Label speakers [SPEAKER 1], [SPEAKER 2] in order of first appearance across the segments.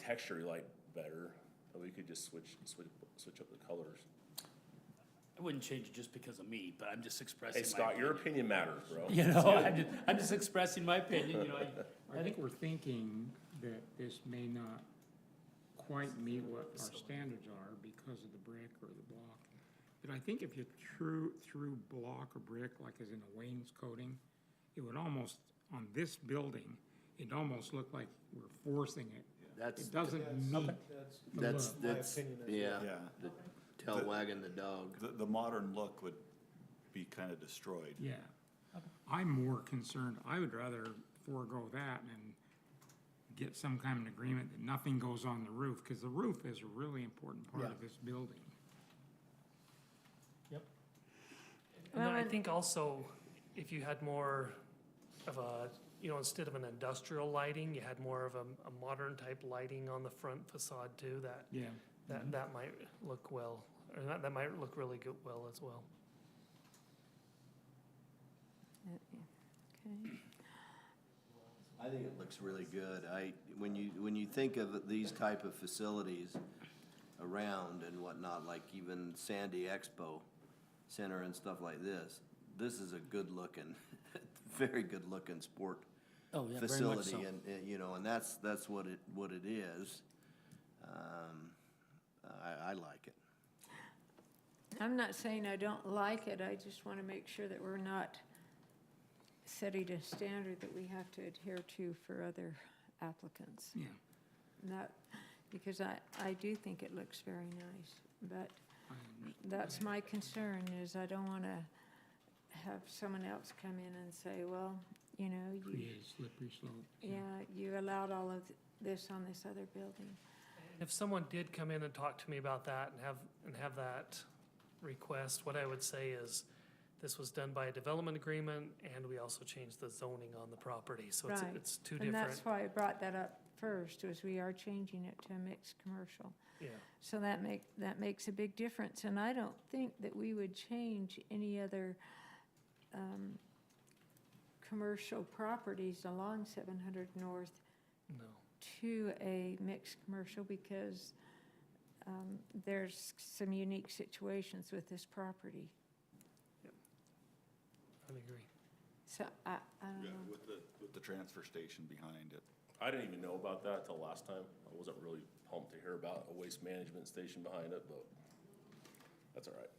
[SPEAKER 1] texture you like better, but we could just switch, switch, switch up the colors.
[SPEAKER 2] I wouldn't change it just because of me, but I'm just expressing
[SPEAKER 1] Hey
[SPEAKER 2] my.
[SPEAKER 1] Scott, your opinion matters, bro.
[SPEAKER 2] You know, I'm just, I'm just expressing my opinion, you know, I,
[SPEAKER 3] I think we're thinking that this may not quite meet what our standards are because of the brick or the block. But I think if you threw, through block or brick, like as in a wainscoting, it would almost, on this building, it almost looked like we're forcing it.
[SPEAKER 4] That's,
[SPEAKER 3] It doesn't meet the
[SPEAKER 4] that's,
[SPEAKER 3] look.
[SPEAKER 4] that's, yeah,
[SPEAKER 5] Yeah.
[SPEAKER 4] the tail
[SPEAKER 5] The-
[SPEAKER 4] wagging the dog.
[SPEAKER 5] The, the modern look would be kind of destroyed.
[SPEAKER 3] Yeah. I'm more concerned, I would rather forego that and get some kind of agreement that nothing goes on the roof, because the roof is a really important part of this building.
[SPEAKER 6] And then
[SPEAKER 7] Well,
[SPEAKER 6] I
[SPEAKER 7] and-
[SPEAKER 6] think also, if you had more of a, you know, instead of an industrial lighting, you had more of a, a modern type lighting on the front facade too, that,
[SPEAKER 3] Yeah.
[SPEAKER 6] that, that might look well, or that, that might look really good, well as well.
[SPEAKER 7] Okay.
[SPEAKER 4] I think it looks really good. I, when you, when you think of these type of facilities around and whatnot, like even Sandy Expo Center and stuff like this, this is a good looking, very good looking sport
[SPEAKER 2] oh, yeah, very much so.
[SPEAKER 4] facility and, and, you know, and that's, that's what it, what it is. Um, I, I like it.
[SPEAKER 7] I'm not saying I don't like it, I just want to make sure that we're not setting a standard that we have to adhere to for other applicants.
[SPEAKER 3] Yeah,
[SPEAKER 7] Not, because I, I do think it looks very nice, but
[SPEAKER 3] Um,
[SPEAKER 7] that's my concern, is I don't want to have someone else come in and say, well, you know, you,
[SPEAKER 3] create a slippery slope.
[SPEAKER 7] yeah, you allowed all of this on this other building.
[SPEAKER 6] If someone did come in and talk to me about that and have, and have that request, what I would say is, this was done by a development agreement, and we also changed the zoning on the property, so it's,
[SPEAKER 7] Right.
[SPEAKER 6] it's two
[SPEAKER 7] And
[SPEAKER 6] different,
[SPEAKER 7] that's why I brought that up first, was we are changing it to a mixed commercial.
[SPEAKER 6] yeah.
[SPEAKER 7] So that make, that makes a big difference, and I don't think that we would change any other, um, commercial properties along seven hundred north
[SPEAKER 6] No,
[SPEAKER 7] to a mixed commercial because, um, there's some unique situations with this property.
[SPEAKER 6] I agree.
[SPEAKER 7] So I, I don't
[SPEAKER 5] Yeah,
[SPEAKER 7] know.
[SPEAKER 5] with the, with the transfer station behind it.
[SPEAKER 1] I didn't even know about that till last time. I wasn't really pumped to hear about a waste management station behind it, but that's all right.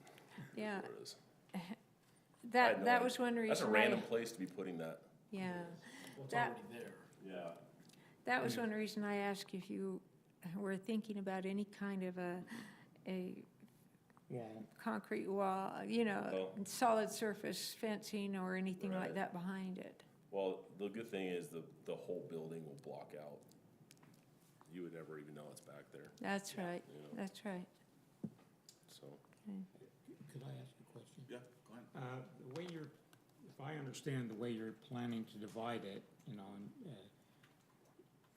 [SPEAKER 1] It is
[SPEAKER 7] Yeah,
[SPEAKER 1] what it is. I had
[SPEAKER 7] that,
[SPEAKER 1] no
[SPEAKER 7] that
[SPEAKER 1] idea.
[SPEAKER 7] was one reason.
[SPEAKER 1] That's a
[SPEAKER 7] I-
[SPEAKER 1] random place to be putting that.
[SPEAKER 7] Yeah,
[SPEAKER 2] Well, it's
[SPEAKER 7] that-
[SPEAKER 2] already there.
[SPEAKER 1] Yeah.
[SPEAKER 7] That was one reason I asked if you were thinking about any kind of a, a
[SPEAKER 3] Wall.
[SPEAKER 7] concrete wall, you know,
[SPEAKER 1] Oh.
[SPEAKER 7] solid surface fencing or anything like
[SPEAKER 1] Right.
[SPEAKER 7] that behind it.
[SPEAKER 1] Well, the good thing is the, the whole building will block out. You would never even know it's back there,
[SPEAKER 7] That's right,
[SPEAKER 1] you know,
[SPEAKER 7] that's right.
[SPEAKER 1] so.
[SPEAKER 3] Could I ask a question?
[SPEAKER 5] Yeah, go ahead.
[SPEAKER 3] Uh, The way you're, if I understand the way you're planning to divide it, you know,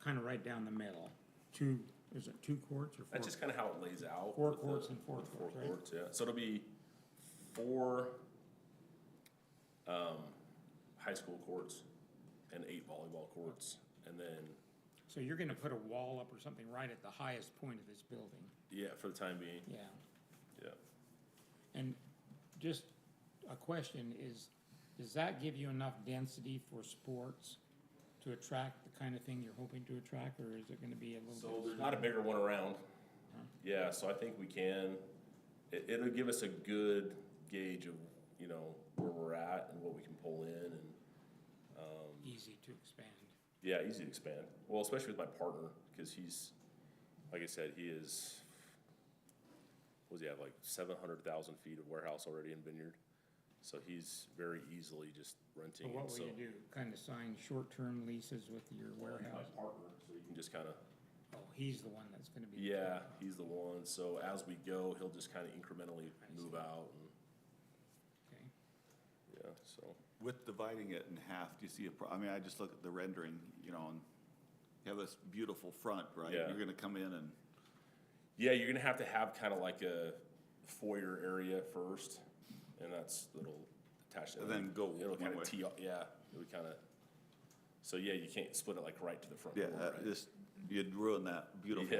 [SPEAKER 3] kind of right down the middle, two, is it two courts or four?
[SPEAKER 1] That's just kind of how it lays out.
[SPEAKER 3] Four
[SPEAKER 1] with the-
[SPEAKER 3] courts and four
[SPEAKER 1] with
[SPEAKER 3] courts, right?
[SPEAKER 1] yeah. So it'll be four, um, high school courts and eight volleyball courts. And then,
[SPEAKER 3] So you're going to put a wall up or something right at the highest point of this building?
[SPEAKER 1] yeah, for the time being,
[SPEAKER 3] Yeah.
[SPEAKER 1] yeah.
[SPEAKER 3] And just a question is, does that give you enough density for sports to attract the kind of thing you're hoping to attract, or is it going to be a little
[SPEAKER 1] So
[SPEAKER 3] bit?
[SPEAKER 1] there's Hmm. not a bigger one around. Yeah, so I think we can, it, it'll give us a good gauge of, you know, where we're at and what we can pull in and,
[SPEAKER 3] Easy to expand.
[SPEAKER 1] yeah, easy to expand. Well, especially with my partner, because he's, like I said, he is, what does he have, like seven hundred thousand feet of warehouse already in Vineyard? So he's very easily just
[SPEAKER 3] So
[SPEAKER 1] renting
[SPEAKER 3] what
[SPEAKER 1] it, so.
[SPEAKER 3] will you do? Kind of sign short-term leases with your
[SPEAKER 1] My
[SPEAKER 3] warehouse?
[SPEAKER 1] partner, so you can just kinda
[SPEAKER 3] Oh, he's the one that's going to be. the-
[SPEAKER 1] Yeah, he's the one. So as we go, he'll just kind of incrementally move out and,
[SPEAKER 3] Okay.
[SPEAKER 1] yeah, so.
[SPEAKER 5] With dividing it in half, do you see a pro, I mean, I just look at the rendering, you know, and you have this beautiful front, right?
[SPEAKER 1] Yeah.
[SPEAKER 5] You're gonna come in and,
[SPEAKER 1] Yeah, you're gonna have to have kind of like a foyer area first, and that's little attached.
[SPEAKER 5] And then go
[SPEAKER 1] It'll
[SPEAKER 5] one
[SPEAKER 1] kind
[SPEAKER 5] way.
[SPEAKER 1] of tee, off- yeah, it would kind of, so yeah, you can't split it like right to the front
[SPEAKER 5] yeah,
[SPEAKER 1] door,
[SPEAKER 5] uh,
[SPEAKER 1] right?
[SPEAKER 5] just
[SPEAKER 8] you'd ruin that beautiful
[SPEAKER 5] Yeah.